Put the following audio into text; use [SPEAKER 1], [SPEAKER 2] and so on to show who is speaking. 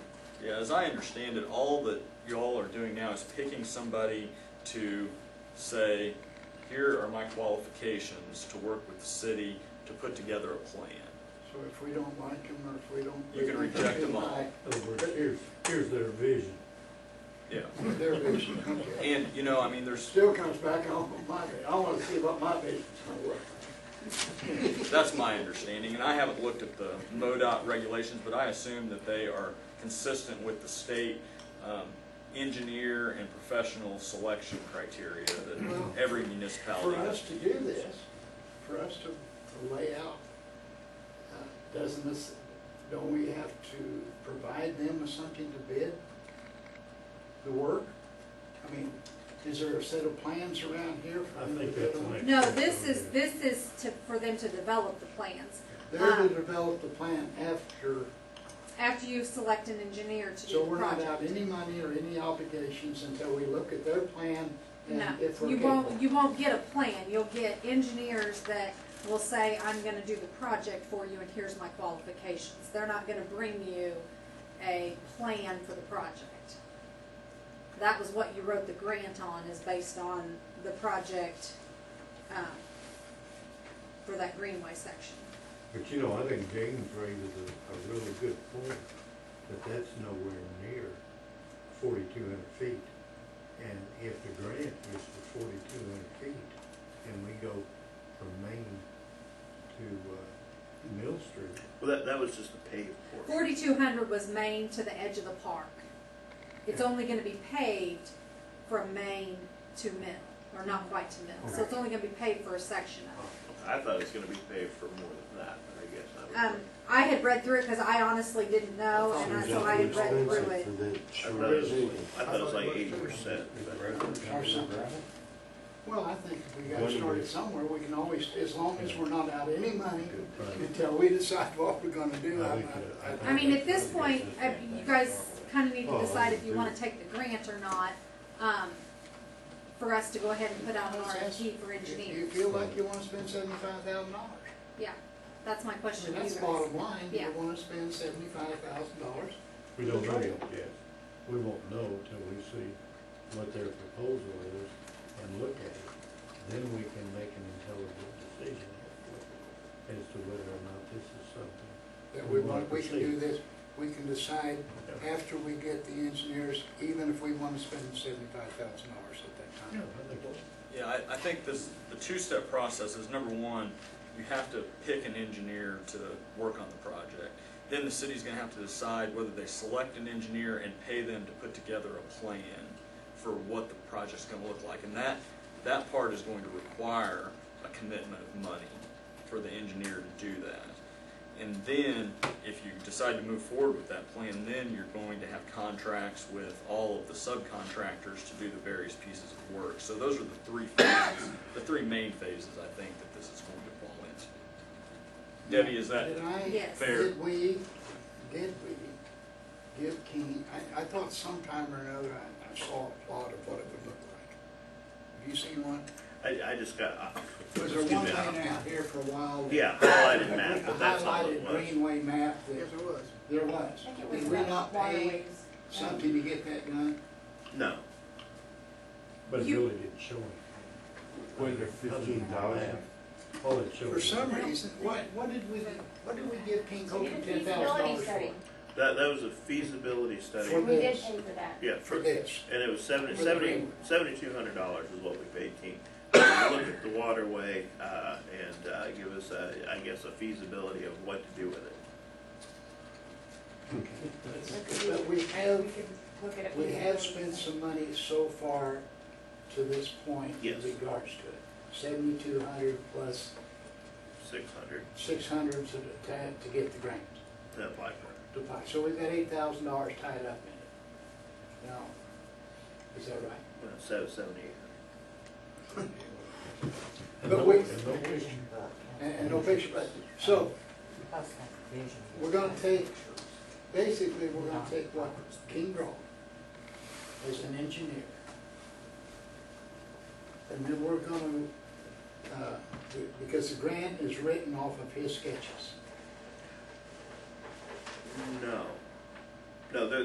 [SPEAKER 1] Yeah, as I understand it, all that y'all are doing now is picking somebody to say, here are my qualifications to work with the city to put together a plan.
[SPEAKER 2] So if we don't like them, or if we don't.
[SPEAKER 1] You can reject them all.
[SPEAKER 3] In other words, here's, here's their vision.
[SPEAKER 1] Yeah.
[SPEAKER 2] Their vision, okay.
[SPEAKER 1] And, you know, I mean, there's,
[SPEAKER 2] Still comes back on my, I wanna see what my vision's gonna work.
[SPEAKER 1] that's my understanding, and I haven't looked at the MoDOT regulations, but I assume that they are consistent with the state um, engineer and professional selection criteria
[SPEAKER 2] Well,
[SPEAKER 1] that every municipality
[SPEAKER 2] For
[SPEAKER 1] has.
[SPEAKER 2] us to do this, for us to, to lay out, uh, doesn't this, don't we have to provide them with something to bid? The work? I mean, is there a set of plans around here for
[SPEAKER 3] I
[SPEAKER 2] them to
[SPEAKER 3] think
[SPEAKER 2] bid
[SPEAKER 3] that's the
[SPEAKER 2] on?
[SPEAKER 3] next.
[SPEAKER 4] No,
[SPEAKER 3] step
[SPEAKER 4] this
[SPEAKER 3] over
[SPEAKER 4] is,
[SPEAKER 3] there.
[SPEAKER 4] this is to, for them to develop the plans.
[SPEAKER 2] They're to
[SPEAKER 4] Um,
[SPEAKER 2] develop the plan after,
[SPEAKER 4] After you select an engineer to
[SPEAKER 2] so
[SPEAKER 4] do the
[SPEAKER 2] we're not out
[SPEAKER 4] project.
[SPEAKER 2] any money or any obligations until we look at their plan and
[SPEAKER 4] No,
[SPEAKER 2] if we're
[SPEAKER 4] you
[SPEAKER 2] capable.
[SPEAKER 4] won't, you won't get a plan. You'll get engineers that will say, I'm gonna do the project for you and here's my qualifications. They're not gonna bring you a plan for the project. That was what you wrote the grant on, is based on the project, um, for that greenway section.
[SPEAKER 3] But you know, I think James raises a, a really good point, that that's nowhere near forty-two hundred feet. And if the grant is for forty-two hundred feet, and we go from Main to, uh, Mill Street,
[SPEAKER 5] Well, that, that was just the paved portion.
[SPEAKER 4] Forty-two hundred was Main to the edge of the park. It's only gonna be paved from Main to Mill, or not quite to Mill, so it's only gonna be paved for a section of it.
[SPEAKER 5] I thought it was gonna be paved for more than that, but I guess I was.
[SPEAKER 4] Um, I had read through it, cause I honestly didn't know, and I- so I had read through it.
[SPEAKER 5] I thought it was, I thought it was like eighty percent, but
[SPEAKER 2] Or something. Well, I think if we got
[SPEAKER 3] One
[SPEAKER 2] started
[SPEAKER 3] way.
[SPEAKER 2] somewhere, we can always, as long as we're not out any money
[SPEAKER 3] Good plan.
[SPEAKER 2] until we decide what we're gonna do.
[SPEAKER 3] I
[SPEAKER 2] I'm
[SPEAKER 3] think
[SPEAKER 2] not-
[SPEAKER 3] that-
[SPEAKER 2] I-
[SPEAKER 4] I mean, at this point, uh, you guys kinda
[SPEAKER 5] Oh,
[SPEAKER 4] need to decide if you wanna take the grant or not, um, for us to go ahead and put out an RFP for
[SPEAKER 2] If you
[SPEAKER 4] engineers.
[SPEAKER 2] feel like you wanna spend seventy-five thousand dollars,
[SPEAKER 4] Yeah, that's my
[SPEAKER 2] I
[SPEAKER 4] question
[SPEAKER 2] mean,
[SPEAKER 4] to you
[SPEAKER 2] that's
[SPEAKER 4] guys.
[SPEAKER 2] bottom line,
[SPEAKER 4] Yeah.
[SPEAKER 2] you wanna spend seventy-five thousand dollars.
[SPEAKER 3] We don't know yet, yes. We won't know till we see what their proposal is and look at it. Then we can make an intelligent decision as to whether or not this is something.
[SPEAKER 2] That we
[SPEAKER 3] We wanna
[SPEAKER 2] want, we can do
[SPEAKER 3] proceed.
[SPEAKER 2] this, we can decide after we get the engineers, even if we wanna spend seventy-five thousand dollars at that time.
[SPEAKER 3] I think
[SPEAKER 1] Yeah, I, I think this, the two-step process is, number one, you have to pick an engineer to work on the project. Then the city's gonna have to decide whether they select an engineer and pay them to put together a plan for what the project's gonna look like. And that, that part is going to require a commitment of money for the engineer to do that. And then, if you decide to move forward with that plan, then you're going to have contracts with all of the subcontractors to do the various pieces of work. So those are the three phases, the three main phases, I think, that this is going to fall into. Debbie, is that,
[SPEAKER 2] Did I-
[SPEAKER 4] Yes.
[SPEAKER 1] Fair.
[SPEAKER 2] Did we, did we give King, I, I thought sometime or another, I, I saw a plot of what it would look like. Have you seen one?
[SPEAKER 5] I, I just got, uh,
[SPEAKER 2] Was there
[SPEAKER 5] excuse
[SPEAKER 2] one
[SPEAKER 5] me, I-
[SPEAKER 2] laying out here for a while? that-
[SPEAKER 5] yeah, highlighted
[SPEAKER 2] With
[SPEAKER 5] map,
[SPEAKER 2] the
[SPEAKER 5] but that's not what it
[SPEAKER 2] highlighted
[SPEAKER 5] was.
[SPEAKER 2] greenway map
[SPEAKER 6] Yes,
[SPEAKER 2] that,
[SPEAKER 6] there was.
[SPEAKER 2] there was.
[SPEAKER 7] I think it was
[SPEAKER 2] Did we
[SPEAKER 7] about
[SPEAKER 2] not pay
[SPEAKER 7] waterways.
[SPEAKER 2] something to get that done?
[SPEAKER 5] No,
[SPEAKER 3] But it
[SPEAKER 4] You-
[SPEAKER 3] really didn't show anything. Whether fifteen thousand. All it showed.
[SPEAKER 2] For
[SPEAKER 3] was-
[SPEAKER 2] some reason, what, what did we, what did we give King
[SPEAKER 7] We did
[SPEAKER 2] Coker
[SPEAKER 7] a
[SPEAKER 2] ten thousand
[SPEAKER 7] feasibility
[SPEAKER 2] dollars for?
[SPEAKER 7] study.
[SPEAKER 5] that, that was a feasibility study.
[SPEAKER 2] For
[SPEAKER 7] We did
[SPEAKER 2] this.
[SPEAKER 7] pay for that.
[SPEAKER 5] Yeah,
[SPEAKER 2] For
[SPEAKER 5] for,
[SPEAKER 2] this.
[SPEAKER 5] and it was seventy,
[SPEAKER 2] For the
[SPEAKER 5] seventy,
[SPEAKER 2] green.
[SPEAKER 5] seventy-two hundred dollars is what we paid King. Look at the waterway, uh, and, uh, give us, a- I guess, a feasibility of what to do with it.
[SPEAKER 2] But we have
[SPEAKER 7] We could look at it.
[SPEAKER 2] We have spent some money so far to this point in
[SPEAKER 5] Yes.
[SPEAKER 2] regards to it. Seventy-two hundred plus
[SPEAKER 5] Six hundred,
[SPEAKER 2] six hundred to, to to get the grant.
[SPEAKER 5] to apply for
[SPEAKER 2] to
[SPEAKER 5] it.
[SPEAKER 2] buy. So we've got eight thousand dollars tied up in it. Now, is that right?
[SPEAKER 5] Well, so seventy-eight hundred.
[SPEAKER 3] And
[SPEAKER 2] but
[SPEAKER 3] no-
[SPEAKER 2] we-
[SPEAKER 3] and no vision.
[SPEAKER 2] And, and no picture, but, so we're gonna take, basically, we're gonna take what King Grove as an engineer. And then we're gonna, uh, be- because the grant is written off of his sketches.
[SPEAKER 5] No. No, there,